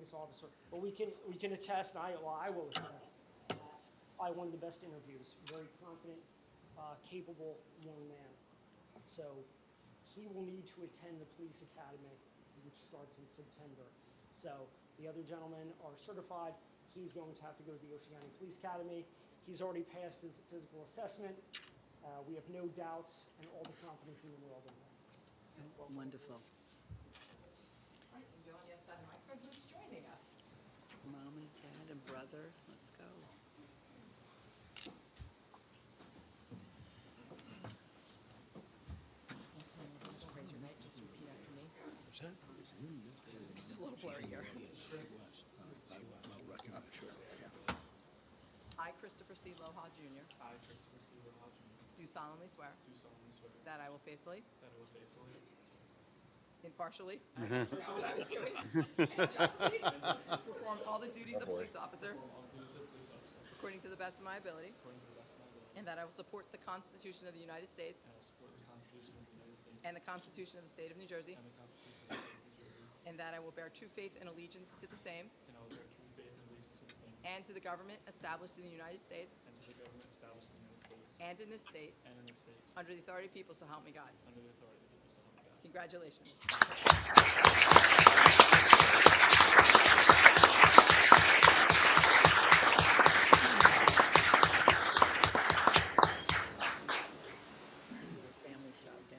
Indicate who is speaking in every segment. Speaker 1: this officer. But we can, we can attest, and I, well, I will attest, I won the best interviews, very confident, uh, capable young man. So he will need to attend the police academy, which starts in September. So the other gentlemen are certified. He's going to have to go to the Ocean County Police Academy. He's already passed his physical assessment. Uh, we have no doubts and all the confidence in the world in him.
Speaker 2: Wonderful.
Speaker 3: Right, and you're on the other side of the microphone, who's joining us?
Speaker 2: Mom and dad and brother, let's go.
Speaker 3: Raise your right, just repeat after me.
Speaker 4: What's that?
Speaker 3: It's a little blurry here.
Speaker 4: Well, recognized, sure.
Speaker 3: I, Christopher C. Loha Jr.,
Speaker 5: I, Christopher C. Hodgman,
Speaker 3: do solemnly swear
Speaker 5: do solemnly swear that
Speaker 3: that I will faithfully,
Speaker 5: I will faithfully,
Speaker 3: impartially, I just forgot what I was doing, and justly perform all the duties of police officer
Speaker 5: perform all the duties of police officer
Speaker 3: according to the best of my ability,
Speaker 5: according to the best of my ability,
Speaker 3: and that I will support the Constitution of the United States
Speaker 5: and I will support the Constitution of the United States
Speaker 3: and the Constitution of the State of New Jersey,
Speaker 5: and the Constitution of the State of New Jersey,
Speaker 3: and that I will bear true faith and allegiance to the same
Speaker 5: and I will bear true faith and allegiance to the same,
Speaker 3: and to the government established in the United States
Speaker 5: and to the government established in the United States
Speaker 3: and in this state
Speaker 5: and in the state,
Speaker 3: under the authority of the people, so help me God.
Speaker 5: under the authority of the people, so help me God.
Speaker 3: Congratulations.
Speaker 2: Family shot there.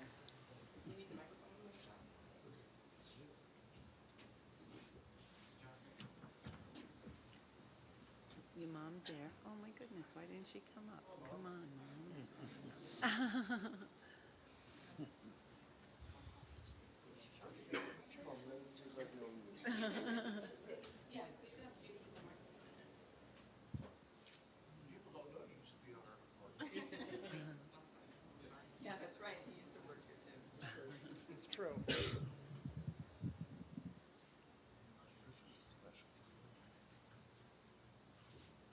Speaker 2: Your mom there? Oh my goodness, why didn't she come up? Come on, mom.
Speaker 3: Yeah, that's right. He used to work here too.
Speaker 1: It's true.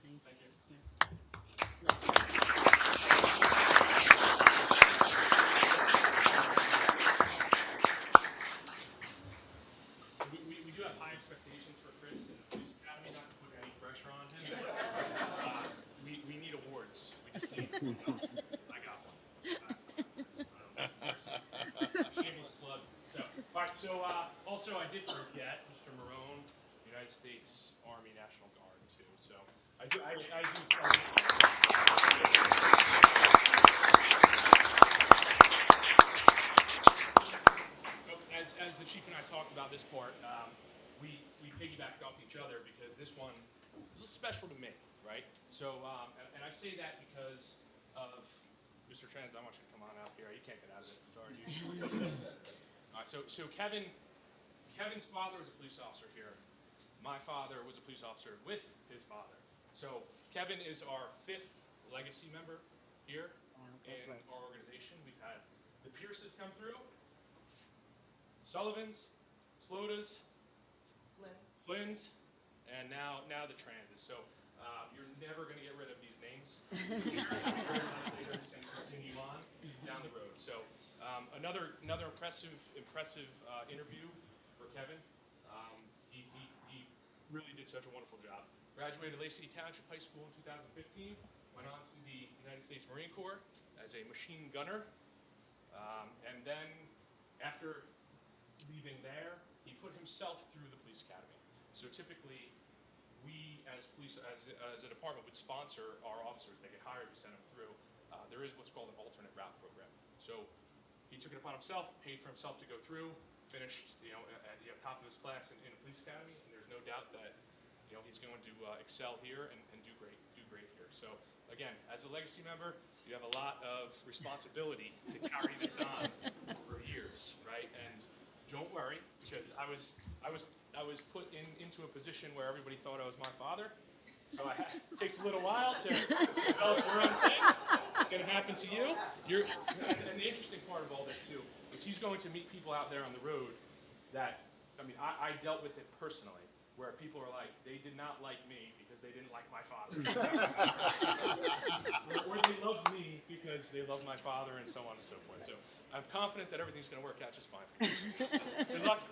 Speaker 2: Thank you.
Speaker 6: We, we, we do have high expectations for Chris in the police academy, not to put any pressure on him. but, uh, We, we need awards. We just need, I got one. Uh, um, Shameless plug. So, all right, so, uh, also I did forget, Mr. Marone, United States Army National Guard too, so I do, I, I do. As, as the chief and I talked about this part, um, we, we piggybacked off each other because this one was special to me, right? So, um, and- and I say that because of, Mr. Trans, I want you to come on out here. You can't get out of this, sorry. you- All right, so, so Kevin, Kevin's father was a police officer here. My father was a police officer with his father. So Kevin is our fifth legacy member here
Speaker 2: Wow, God
Speaker 6: in
Speaker 2: bless.
Speaker 6: our organization. We've had the Pierces come through, Sullivans, Slotas, Flynn's, and now now the Transes. So uh, you're never going to get rid of these names. You're very likely to just continue on down the road. So um, another another impressive impressive uh, interview for Kevin. Um, he, he, he really did such a wonderful job. Graduated Lake City Township High School in 2015. Went on to the United States Marine Corps as a machine gunner. Um, and then after leaving there, he put himself through the police academy. So typically, we as police, as, as a department, would sponsor our officers. They get hired, we send them through. Uh, there is what's called an alternate route program. So he took it upon himself, paid for himself to go through, finished, you know, at, at the top of his class in, in the police academy. And there's no doubt that, you know, he's going to uh, excel here and, and do great, do great here. So again, as a legacy member, you have a lot of responsibility to carry this on for years, right? And don't worry, because I was, I was, I was put in, into a position where everybody thought I was my father. So I had, it takes a little while to develop your own thing. It's gonna happen to you. You're, and, and the interesting part of all this too is he's going to meet people out there on the road that, I mean, I, I dealt with it personally, where people are like, they did not like me because they didn't like my father. or, or they love me because they love my father and so on and so forth. So I'm confident that everything's gonna work out just fine for you. Good luck.